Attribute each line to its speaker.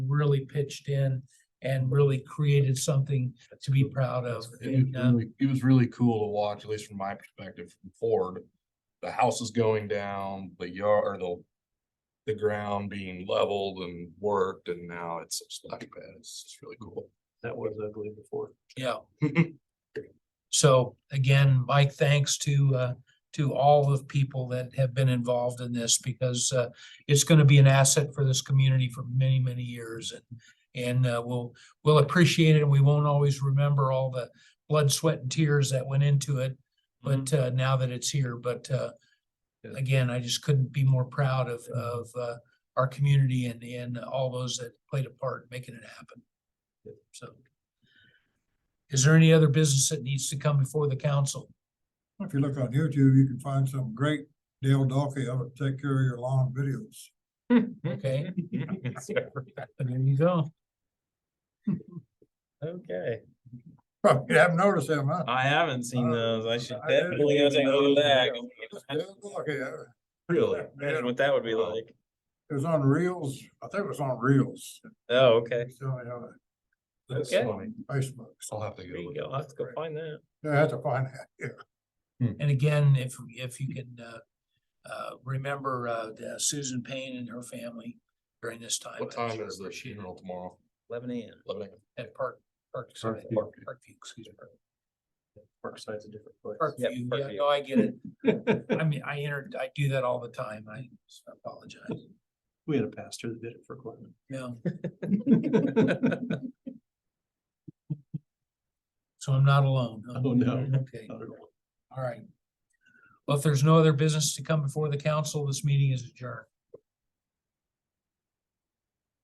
Speaker 1: really pitched in and really created something to be proud of.
Speaker 2: It
Speaker 1: And,
Speaker 2: was
Speaker 1: uh,
Speaker 2: really- it was really cool to watch, at least from my perspective, from Ford. The house is going down, the yard, or the, the ground being leveled and worked, and now it's a splash pad. It's just really cool.
Speaker 3: That was ugly before.
Speaker 1: yeah. So again, Mike, thanks to, uh, to all of people that have been involved in this because, uh, it's gonna be an asset for this community for many, many years and, and, uh, we'll, we'll appreciate it and we won't always remember all the blood, sweat and tears that went into it. But, uh, now that it's here, but, uh,
Speaker 3: Yeah.
Speaker 1: again, I just couldn't be more proud of, of, uh, our community and, and all those that played a part in making it happen. So. Is there any other business that needs to come before the council?
Speaker 4: If you look on YouTube, you can find some great Dale Dockey, how to take care of your lawn videos.
Speaker 1: Okay, there you go.
Speaker 5: Okay,
Speaker 4: Probably haven't noticed him, huh?
Speaker 5: I haven't seen those. I should
Speaker 4: I did
Speaker 5: definitely go
Speaker 4: see
Speaker 5: take a
Speaker 4: those,
Speaker 5: look at
Speaker 4: yeah.
Speaker 5: that.
Speaker 4: Dale Dockey, uh,
Speaker 5: Really?
Speaker 4: Yeah.
Speaker 5: Imagine what that would be
Speaker 2: Wow.
Speaker 5: like.
Speaker 4: It was on Reels, I think it was on Reels.
Speaker 5: Oh, okay.
Speaker 4: It's on, uh,
Speaker 2: That's
Speaker 5: Okay.
Speaker 2: funny.
Speaker 4: Facebook.
Speaker 2: I'll have to
Speaker 5: There
Speaker 2: go.
Speaker 5: you
Speaker 2: look
Speaker 5: go.
Speaker 2: at
Speaker 5: I'll have to go
Speaker 4: Right.
Speaker 5: find that.
Speaker 4: Yeah, I had to find that, yeah.
Speaker 1: And again, if, if you can, uh, uh, remember, uh, the Susan Payne and her family during this time.
Speaker 2: that. What
Speaker 1: I'd
Speaker 2: time
Speaker 1: sure
Speaker 2: is the
Speaker 1: appreciate it.
Speaker 2: funeral tomorrow?
Speaker 5: Eleven AM.
Speaker 2: Eleven a.m.
Speaker 1: At Park, Park, sorry,
Speaker 3: Parkview.
Speaker 1: Park- Parkview, excuse me.
Speaker 3: Parkside's a different place.
Speaker 5: Yep,
Speaker 1: Parkview, yeah,
Speaker 5: Parkview.
Speaker 1: no, I get it. I mean, I entered, I do that all the time. I apologize.
Speaker 3: We had a pastor that did it for Clinton.
Speaker 1: No, so I'm not alone. huh?
Speaker 3: Oh, no.
Speaker 1: Okay, all right. Well, if there's no other business to come before the council, this meeting is adjourned.